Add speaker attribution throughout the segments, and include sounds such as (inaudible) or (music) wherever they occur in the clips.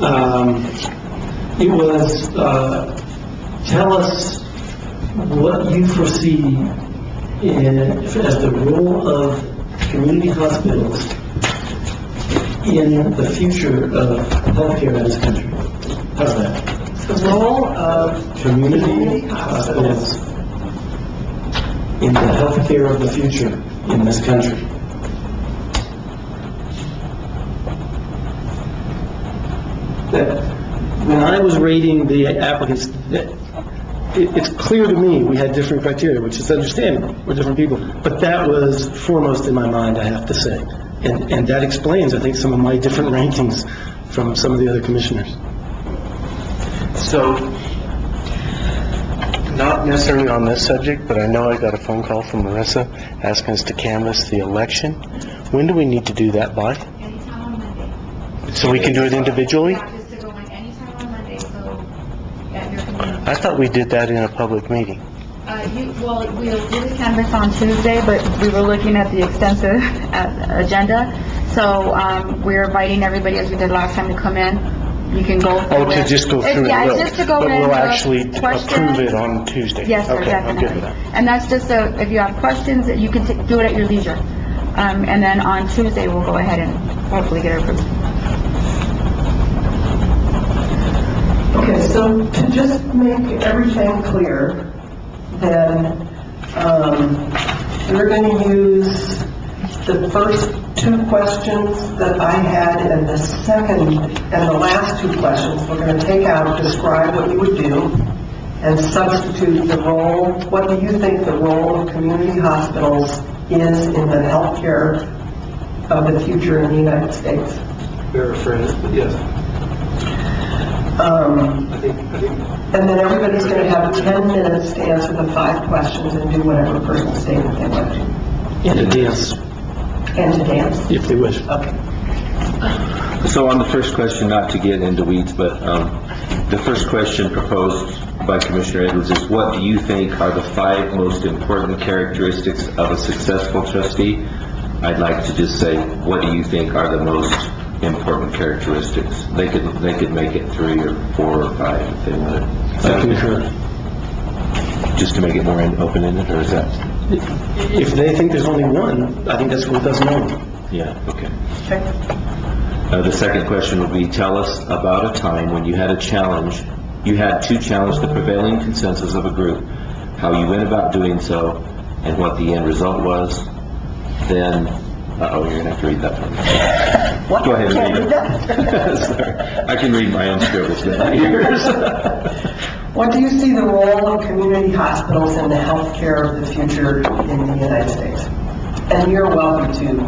Speaker 1: Um, It was, uh, tell us what you foresee in, as the role of community hospitals in the future of healthcare in this country. How's that?
Speaker 2: The role of
Speaker 1: Community hospitals in the healthcare of the future in this country. That, when I was rating the applicants, that- it, it's clear to me we had different criteria, which is understandable, we're different people, but that was foremost in my mind, I have to say. And, and that explains, I think, some of my different rankings from some of the other commissioners.
Speaker 3: So, not necessarily on this subject, but I know I got a phone call from Marissa asking us to canvass the election. When do we need to do that by?
Speaker 4: Anytime on Monday.
Speaker 3: So we can do it individually?
Speaker 4: Practice to go in anytime on Monday, so at your convenience.
Speaker 3: I thought we did that in a public meeting.
Speaker 4: Uh, you, well, we'll do the
Speaker 2: canvas on Tuesday, but we were looking at the extensive (laughs) uh, agenda, so um, we're inviting everybody, as we did last time, to come in. You can go.
Speaker 3: Oh,
Speaker 2: through
Speaker 3: to
Speaker 2: it.
Speaker 3: just go through it?
Speaker 2: Yeah,
Speaker 3: real-
Speaker 2: just to go in.
Speaker 3: But
Speaker 2: look,
Speaker 3: we'll actually
Speaker 2: question.
Speaker 3: approve it on Tuesday?
Speaker 2: Yes, sir,
Speaker 3: Okay, I'm good
Speaker 2: definitely.
Speaker 3: with that.
Speaker 2: And that's just, a- if you have questions, you can t- do it at your leisure. Um, And then on Tuesday, we'll go ahead and hopefully get it approved.
Speaker 5: Okay, so to just make everything clear, then, um, we're going to use the first two questions that I had and the second, and the last two questions, we're going to take out, describe what you would do, and substitute the role, what do you think the role of community hospitals is in the healthcare of the future in the United States?
Speaker 1: yes,
Speaker 5: Um,
Speaker 1: I think, I think
Speaker 5: And then everybody's going to have 10 minutes to answer the five questions and do whatever personal statement they want to.
Speaker 1: And a dance,
Speaker 5: And to dance.
Speaker 1: if they wish.
Speaker 6: So on the first question, not to get into weeds, but um, the first question proposed by Commissioner Edwards is, what do you think are the five most important characteristics of a successful trustee? I'd like to just say, what do you think are the most important characteristics? They could, they could make it three or four or five if they wanted.
Speaker 1: I concur.
Speaker 6: Just to make it more in- open-ended, or is that?
Speaker 1: If they think there's only one, I think that's what doesn't know.
Speaker 6: Yeah, okay. Uh, The second question would be, tell us about a time when you had a challenge, you had to challenge the prevailing consensus of a group, how you went about doing so, and what the end result was. Then, uh-oh, you're gonna have to read that one. Go ahead and read it. (laughs) Sorry. I can read my own scribbles with (laughs) my ears.
Speaker 5: What do you see the role of community hospitals in the healthcare of the future in the United States? And you're welcome to.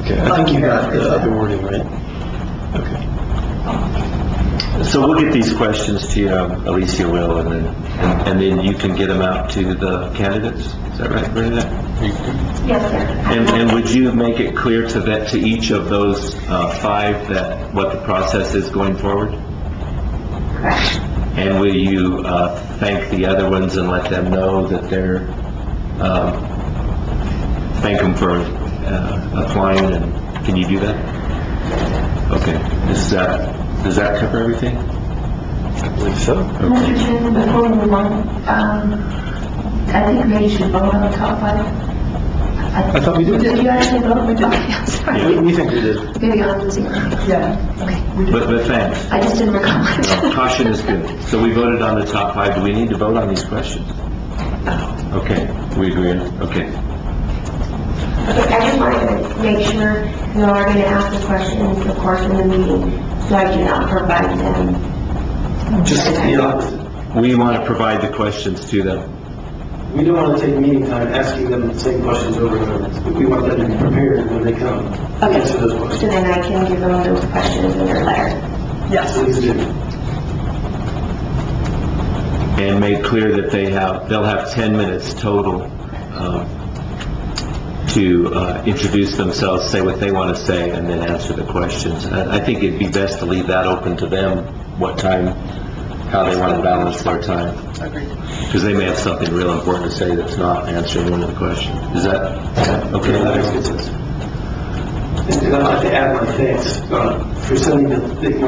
Speaker 1: Okay, I think you got the other wording, right? Okay.
Speaker 6: So we'll get these questions to you, um, Alicia will, and then, and- and then you can get them out to the candidates? Is that right, Brenda?
Speaker 4: Yes, sir.
Speaker 6: And, and would you make it clear to that, to each of those uh, five, that, what the process is going forward? And will you uh, thank the other ones and let them know that they're, um, thank them for uh, applying, and can you do that? Okay, is that, does that cover everything?
Speaker 3: I believe so.
Speaker 7: Mr. Chairman, before we move on, um, I think we should vote on the top five.
Speaker 1: I thought we did.
Speaker 7: Did you actually vote? We did. I'm sorry.
Speaker 1: We- We think we did.
Speaker 7: Maybe I'm losing. it.
Speaker 5: Yeah.
Speaker 6: But, but thanks.
Speaker 7: I just didn't recall.
Speaker 6: No, Caution is good. So we voted on the top five. Do we need to vote on these questions? Okay, we agree. Okay.
Speaker 7: Okay, I just wanted to make sure you are going to ask the questions, of course, in the meeting, so I do not provide them.
Speaker 6: Just, you know, we want to provide the questions to them.
Speaker 1: We don't want to take meeting time asking them the same questions over and over. We want them to be prepared when they come.
Speaker 7: Okay.
Speaker 1: Answer those
Speaker 7: So
Speaker 1: questions.
Speaker 7: then I can give them those questions in their letter.
Speaker 5: Yes.
Speaker 1: Please do.
Speaker 6: And make clear that they have, they'll have 10 minutes total um, to uh, introduce themselves, say what they want to say, and then answer the questions. I I think it'd be best to leave that open to them, what time, how they want to balance their time. Because they may have something real important to say that's not answering one of the questions. Is that, okay?
Speaker 1: That makes good sense. And I'd like to add my thanks uh, for sending the the